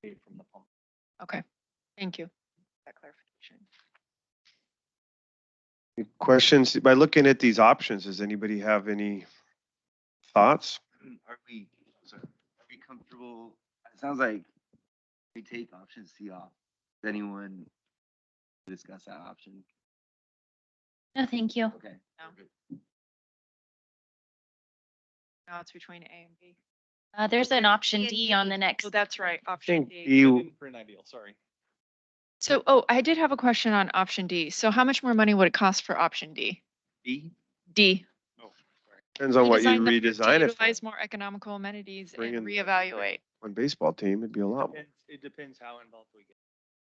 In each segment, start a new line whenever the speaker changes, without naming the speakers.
feet from the pump.
Okay, thank you. for That clarification.
Any Questions, by looking at these options, does anybody have any thoughts?
Are we, sorry, are we comfortable, it sounds like we take option C off. Does anyone discuss that option?
No, thank you.
Okay.
No.
we're good.
Now it's between A and B.
Uh, there's an option
Yeah,
D on the next.
So that's right, option
Think E
D.
you,
For an ideal, sorry.
So, oh, I did have a question on option D. So how much more money would it cost for option D?
B?
D.
Oh, sorry.
depends on what you
Redesign the- to
redesign it for.
Utilize more economical amenities
Bring
and
in the-
reevaluate.
One baseball team, it'd be a lot. more.
Depends- It depends how involved we get.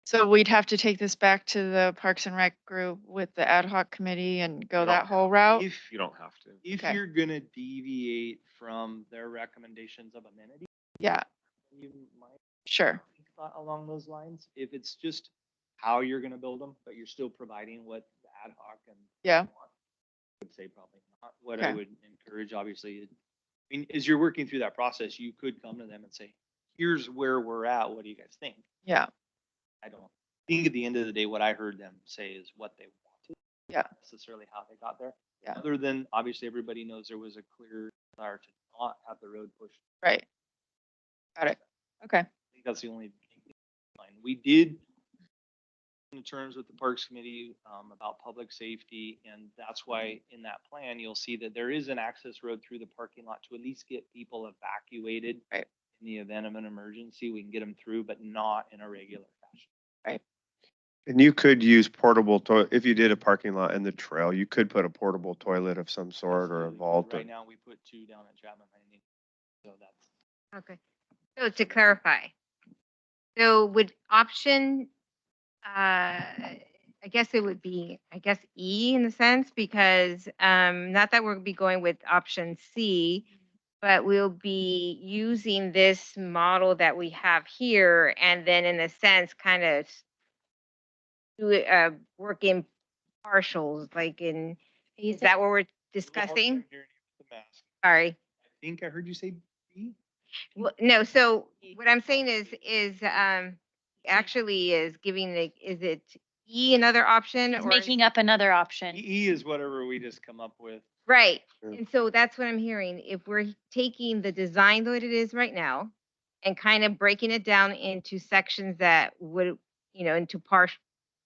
So we'd have to take this back to the Parks and Rec group with the ad hoc committee and go
don't
that whole
Oh.
route?
If you don't have to.
If
Okay.
you're gonna deviate from their recommendations of amenity,
Yeah,
you might
sure.
think about along those lines. If it's just how you're gonna build them, but you're still providing what the ad hoc and.
Yeah.
want, I would say probably not. What I
Okay.
would encourage, obviously, is- I mean, as you're working through that process, you could come to them and say, here's where we're at. What do you guys think?
Yeah,
I don't think at the end of the day, what I heard them say is what they wanted.
Yeah.
not Necessarily how they got there.
Yeah.
Other than, obviously, everybody knows there was a clear desire to not have the road pushed.
right. Got it. Okay,
I think that's the only thing. in mind. We did in terms with the Parks Committee, um, about public safety, and that's why in that plan, you'll see that there is an access road through the parking lot to at least get people evacuated.
Right.
In the event of an emergency, we can get them through, but not in a regular fashion.
And you could use portable toilet, if you did a parking lot in the trail, you could put a portable toilet of some sort or a
Absolutely.
vault. or-
Right now, we put two down at Chapman Landing, so that's.
Okay, so to clarify, so would option, uh, I guess it would be, I guess E in the sense, because, um, not that we'll be going with option C, but we'll be using this model that we have here, and then in a sense, kind of do it, uh, work in partials, like in, is that what we're discussing? Sorry.
I think I heard you say B?
Well, no, so
E.
what I'm saying is, is, um, actually is giving the, is it E another option
It's
or?
making up another option.
E is whatever we just come up with.
Right,
Sure.
and so that's what I'm hearing. If we're taking the design the way it is right now and kind of breaking it down into sections that would, you know, into part,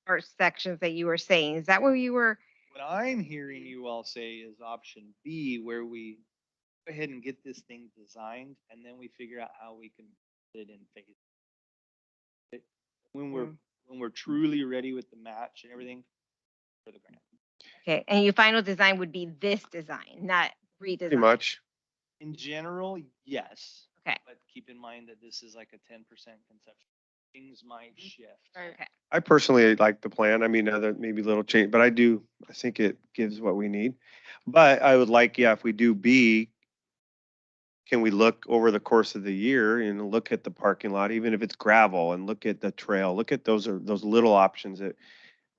part sections that you were saying, is that what you were?
What I'm hearing you all say is option B, where we go ahead and get this thing designed, and then we figure out how we can put it in phase. It- When we're, when we're truly ready with the match and everything for the grant.
Okay, and your final design would be this design, not redesign.
Pretty much.
In general, yes.
Okay.
But keep in mind that this is like a ten percent conception. Things might shift.
Right.
I personally like the plan. I mean, other, maybe little change, but I do, I think it gives what we need. But I would like, yeah, if we do B, can we look over the course of the year and look at the parking lot, even if it's gravel and look at the trail, look at those are those little options that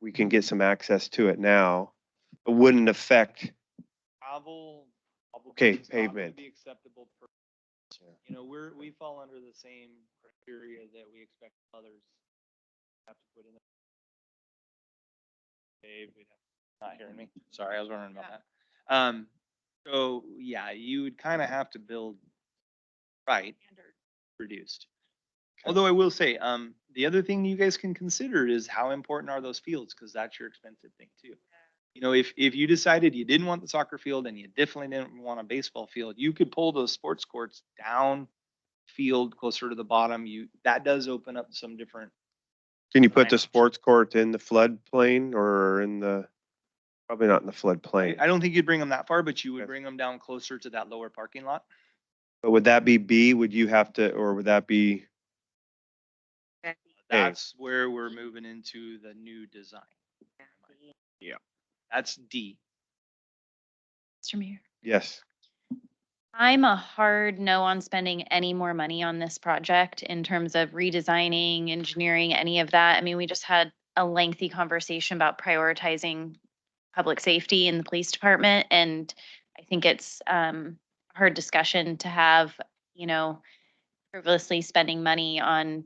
we can get some access to it now. It wouldn't affect,
Travel. probably
Okay,
is not gonna
pavement.
Be acceptable for, you know, we're, we fall under the same criteria that we expect others have to put in. Dave, we'd have, not hearing me, sorry, I was wondering about that. Um, so, yeah, you would kind of have to build, right, reduced. Although I will say, um, the other thing you guys can consider is how important are those fields, because that's your expensive thing too. You know, if, if you decided you didn't want the soccer field and you definitely didn't want a baseball field, you could pull those sports courts down field closer to the bottom. You, that does open up some different,
can you put
Fine
the
option.
sports court in the floodplain or in the, probably not in the
I
floodplain.
I don't think you'd bring them that far, but you would
Yes.
bring them down closer to that lower parking lot.
But would that be B? Would you have to, or would that be?
Okay.
Hey.
That's where we're moving into the new design. That's D.
Mr. Mayor.
Yes.
I'm a hard no on spending any more money on this project in terms of redesigning, engineering, any of that. I mean, we just had a lengthy conversation about prioritizing public safety in the police department, and I think it's um a hard discussion to have, you know, frivolously spending money on